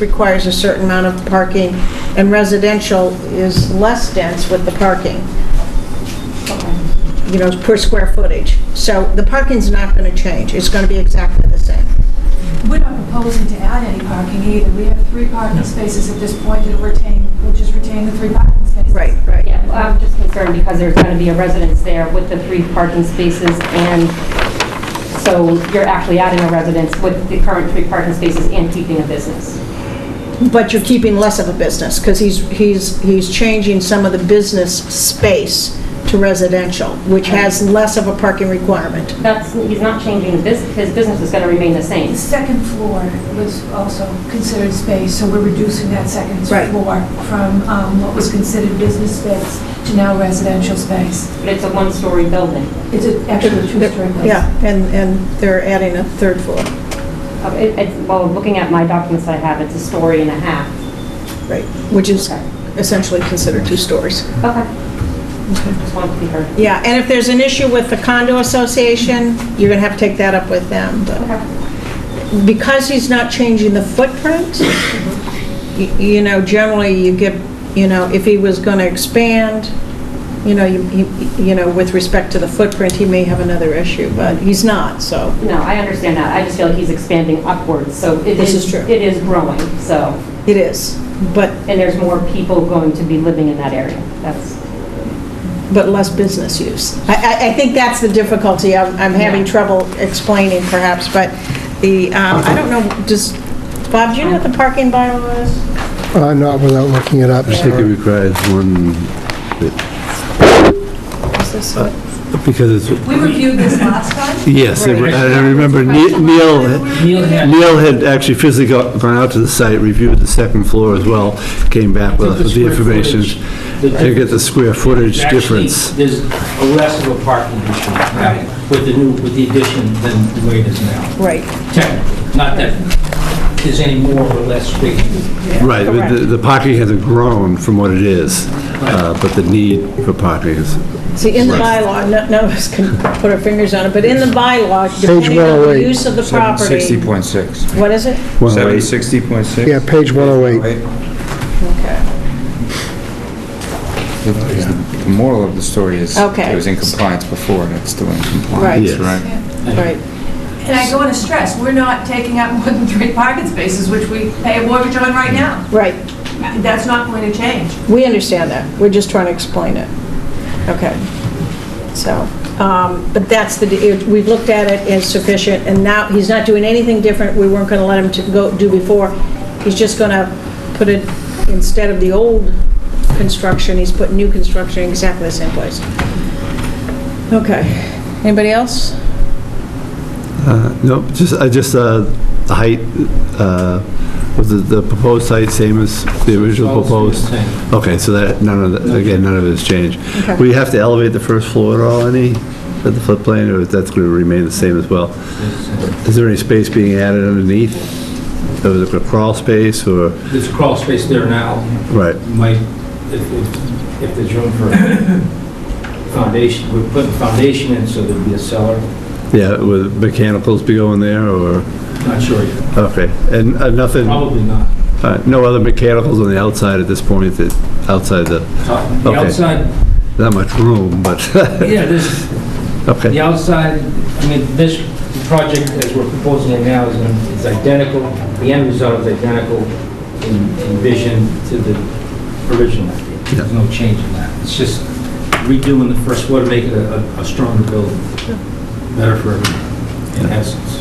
requires a certain amount of parking, and residential is less dense with the parking, you know, per square footage. So the parking's not going to change, it's going to be exactly the same. We're not proposing to add any parking either. We have three parking spaces at this point that retain, we'll just retain the three parking spaces. right. Yeah, well, I'm just concerned because there's going to be a residence there with the three parking spaces, and so you're actually adding a residence with the current three parking spaces and keeping a business. But you're keeping less of a business, because he's, he's, he's changing some of the business space to residential, which has less of a parking requirement. That's, he's not changing this, his business is going to remain the same. The second floor was also considered space, so we're reducing that second Right. floor from um, what was considered business space to now residential space. But it's a one-story building. It's a- actually a two-story building. Yeah, and, and they're adding a third floor, Uh, it- it's- Well, looking at my documents I have, it's a story and a half. right, which is Okay. essentially considered two stories. Okay. Just wanted to be heard. Yeah, and if there's an issue with the condo association, you're going to have to take that up with them. but- Okay. Because he's not changing the footprint, y- you know, generally you get, you know, if he was going to expand, you know, you, you- you know, with respect to the footprint, he may have another issue, but he's not, so. No, I understand that. I just feel like he's expanding upwards, so it is... This is true. It is growing, so, It is, but, and there's more people going to be living in that area. That's... but less business use. I, I, I think that's the difficulty I'm, I'm having Yeah. trouble explaining perhaps, but the, um, I don't know, does, Bob, do you know what the parking bylaw is? Uh, Not without looking it up. I think it requires one, Is this what? because it's, We reviewed this last time. yes, I Right. I remember Ne- Neil, Neil had, Neil had actually physically go- gone out to the site, reviewed the second floor as well, came back with The us with the square information footage, the to get the square footage actually, difference. there's a less of a parking issue right, with the new, with the addition than the way it is now, Right. technically. Not that there's any more or less space. Right, but the the parking hasn't grown from what it is, uh, but the need for parking is, See, in the bylaw, no- none of us can put our fingers on it, but in the bylaw, depending on the 108. use of the property, 60.6. what is it? 7060.6? Yeah, page 108. Okay. The moral of the story is Okay. it was in compliance before, and it's still in compliance, Right. Yes. right? Right, And I do want to stress, we're not taking up more than three parking spaces, which we pay a mortgage on right now. right. That's not going to change. We understand that. We're just trying to explain it. Okay. So, um, but that's the, we've looked at it as sufficient, and now, he's not doing anything different we weren't going to let him to go, do before. He's just going to put it, instead of the old construction, he's putting new construction in exactly the same place. Okay. Anybody else? Uh, No, just, I just, uh, the height, uh, was the- the proposed height same as the original All stayed the proposed? Okay, so that, none of, the- again, none of it has changed. Okay. Will you have to elevate the first floor at all, any, at the floodplain, or that's going to remain the same as well? uh, Is there any space being added underneath? Or is it a crawl space, or, There's a crawl space there now, right, might, if, if- if there's room for foundation, we're putting foundation in, so there'd be a cellar, yeah, would mechanicals be going there, or, not sure yet, okay, and uh, nothing, probably not. uh, no other mechanicals on the outside at this point, that, outside the, The Okay. outside, not much room, but, yeah, there's, okay. The outside, I mean, this project as we're proposing it now is is identical, the end result is identical in in vision to the original idea. There's no change in that. It's just redoing the first floor to make it a a stronger building, better for everyone, in essence.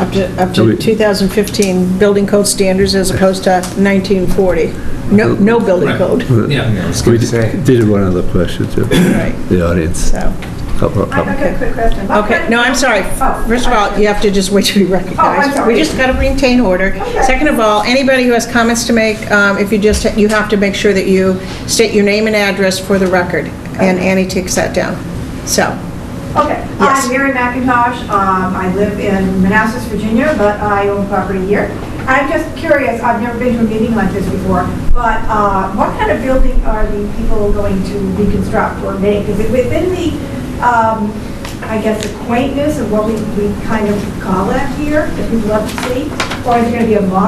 Up to, up Do to we- 2015 building code standards as opposed to 1940. No, no building Right. code, Yeah. I was We going to say. did one other question to right, the audience. so. Couple- I- I've couple. got a quick question. Okay, no, I'm sorry. Oh, First of all, you have to just wait to be recognized. sorry. We just got to maintain order. Okay. Second of all, anybody who has comments to make, um, if you just, you have to make sure that you state your name and address for the record, and Annie takes that down. So, Okay, Yes. I'm Mary McIntosh, um, I live in Manassas, Virginia, but I own property here. I'm just curious, I've never been to a meeting like this before, but uh, what kind of building are the people going to reconstruct or make? Is it within the, um, I guess, the quaintness of what we we kind of call it here, that people love to see? Or is it going to be a modern